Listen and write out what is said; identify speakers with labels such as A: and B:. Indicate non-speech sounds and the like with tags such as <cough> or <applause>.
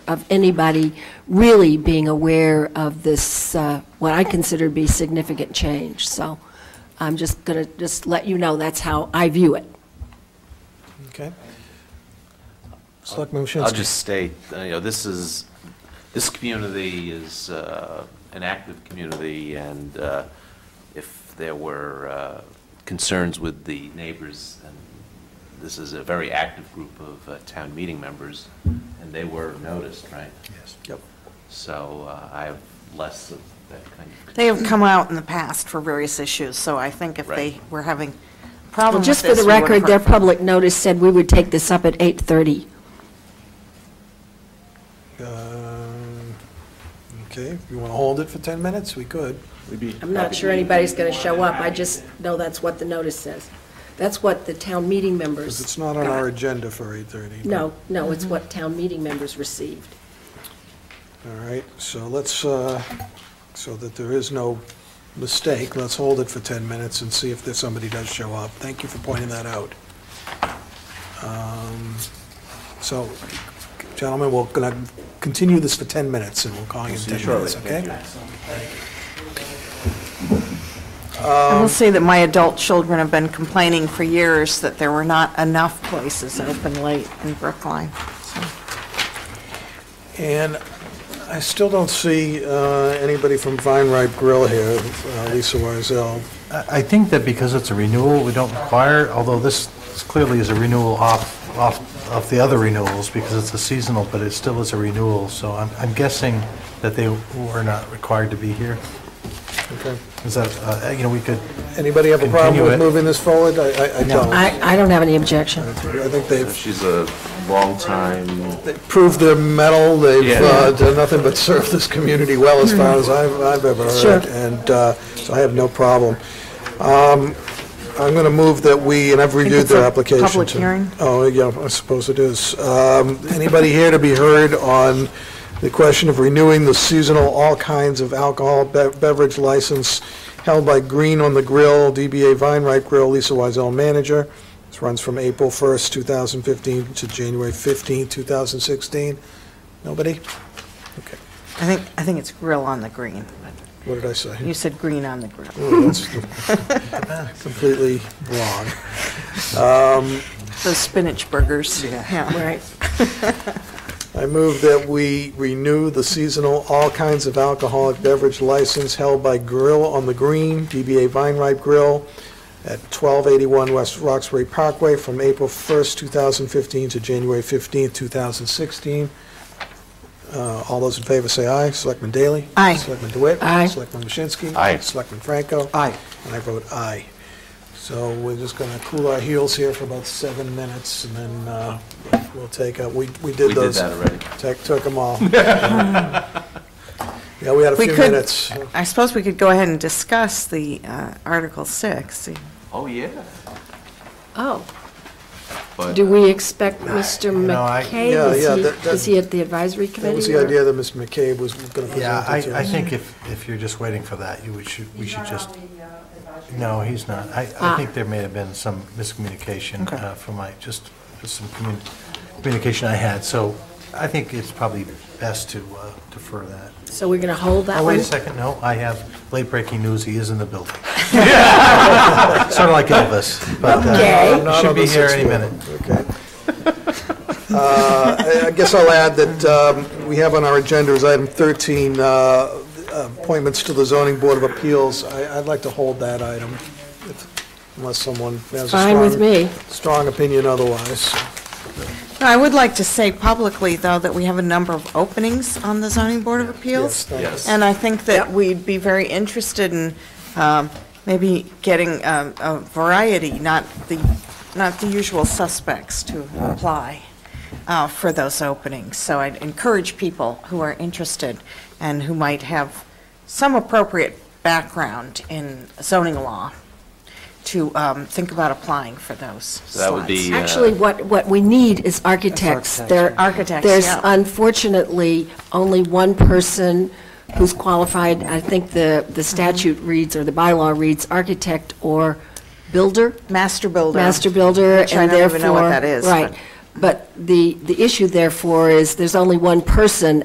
A: of anybody really being aware of this, uh, what I consider to be significant change. So I'm just going to just let you know, that's how I view it.
B: Okay. Uh, Selectman
C: I'll
B: Waschinsky.
C: just state, uh, you know, this is, this community is uh, an active community, and uh, if there were uh, concerns with the neighbors, and this is a very active group of uh, town meeting members, and they were noticed, right?
B: Yes. Yep.
C: So uh, I have less of that kind of.
D: They have come out in the past for various issues, so I think if they
C: Right.
D: were having
A: Well,
D: problems with
A: just for
D: this,
A: the
D: we would've
A: record, their
D: heard from them.
A: public notice said we would take this up at 8:30.
B: Um, Okay, if you want to hold it for 10 minutes, we could.
A: I'm not sure anybody's going to show up, I just know that's what the notice says. That's what the town meeting members.
B: Because it's not on our
A: got.
B: agenda for 8:30. but-
A: No, no, it's what town meeting members received.
B: All right, so let's, uh, so that there is no mistake, let's hold it for 10 minutes and see if there's somebody does show up. Thank you for pointing that out. Um, So, gentlemen, we're going to continue this for 10 minutes, and we'll call you in 10 minutes, okay?
D: I will say that my adult children have been complaining for years that there were not enough places open late in Brookline. so.
B: And I still don't see uh, anybody from Vine Ripe Grill here, uh, Lisa Warzel.
E: I I think that because it's a renewal, we don't require, although this clearly is a renewal off, off, of the other renewals, because it's a seasonal, but it still is a renewal, so I'm, I'm guessing that they were not required to be here.
B: Okay.
E: Is that, uh, you know, we could,
B: Anybody have a problem
E: Continue
B: with
E: it.
B: moving this forward? I- I I don't.
A: I, I don't have any objection.
B: I think they've
C: She's a longtime
B: they've proved their mettle, they've
C: Yeah.
B: uh, done nothing but serve this community well, as far as I've I've ever heard.
A: Sure.
B: And uh, so I have no problem. Um, I'm going to move that we, and I've reviewed
D: it's
B: their
D: a
B: application.
D: public
B: too.
D: hearing.
B: Oh, yeah, I suppose it is. Um, Anybody here to be heard on the question of renewing the seasonal all kinds of alcohol be- beverage license held by Green on the Grill, DBA Vine Ripe Grill, Lisa Wiesel, manager. This runs from April 1st, 2015 to January 15th, 2016. Nobody? Okay,
D: I think, I think it's grill on the green.
B: what did I say?
D: You said green on the grill.
B: Oh, that's <laughs> Completely wrong.
D: Those spinach burgers. Yeah.
A: Right.
B: I move that we renew the seasonal all kinds of alcoholic beverage license held by Grill on the Green, DBA Vine Ripe Grill, at 1281 West Roxbury Parkway from April 1st, 2015 to January 15th, 2016. Uh, All those in favor say aye. Selectman Daley?
D: Aye.
B: Selectman DeWitt?
A: Aye.
B: Selectman Waschinsky?
C: Aye.
B: Selectman Franco?
E: Aye.
B: And I vote aye. So we're just going to cool our heels here for about seven minutes, and then uh, we'll take up, we we
C: We
B: did
C: did
B: those.
C: that already.
B: Took, took them
C: <laughs>
B: all. Yeah, we had a
D: We
B: few
D: could-
B: minutes.
D: I suppose we could go ahead and discuss the uh, Article 6.
C: Oh, yeah.
A: Oh,
C: But
A: do we expect Mr.
E: know, I-
A: McKay?
B: Yeah,
A: Is
B: yeah,
A: he-
B: that- that-
A: Is he at the advisory committee?
B: That was the
A: or-
B: idea that Mr. McCabe was going to
E: yeah,
B: present it to
E: I, I
B: us.
E: think if, if you're just waiting for that, you, we should, we should just. No, he's not. I,
A: Ah.
E: I think there may have been some miscommunication
D: Okay.
E: uh, from my, just just some commun- communication I had, so I think it's probably best to uh, defer that.
A: So we're going to hold that
E: Oh,
A: one?
E: wait a second, no, I have late breaking news, he is in the
A: <laughs>
E: building. Sort of like Elvis, but
A: Okay.
E: uh,
B: Not
E: should
B: on the
E: be here
B: sixth
E: any
B: floor.
E: minute.
B: Okay. Uh, I- I guess I'll add that um, we have on our agenda is item 13, uh, appointments to the zoning board of appeals. I- I'd like to hold that item if- unless someone has a strong...
A: Fine with me.
B: Strong opinion otherwise.
D: I would like to say publicly, though, that we have a number of openings on the zoning board of
B: Yes,
D: appeals.
B: thank you.
C: Yes.
D: And I think that we'd be very interested in um, maybe getting um, a variety, not the, not the usual suspects to apply uh, for those openings. So I'd encourage people who are interested and who might have some appropriate background in zoning law to um, think about applying for those
C: So that would be-
D: slots.
A: Actually, what, what we need is architects. There,
D: Architects,
A: There's
D: yeah.
A: unfortunately only one person who's qualified. I think the, the statute reads, or the bylaw reads, architect or builder,
D: Master builder.
A: master builder,
D: Which I
A: and
D: don't even know what
A: therefore-
D: that is,
A: Right.
D: but-
A: But the, the issue therefore is, there's only one person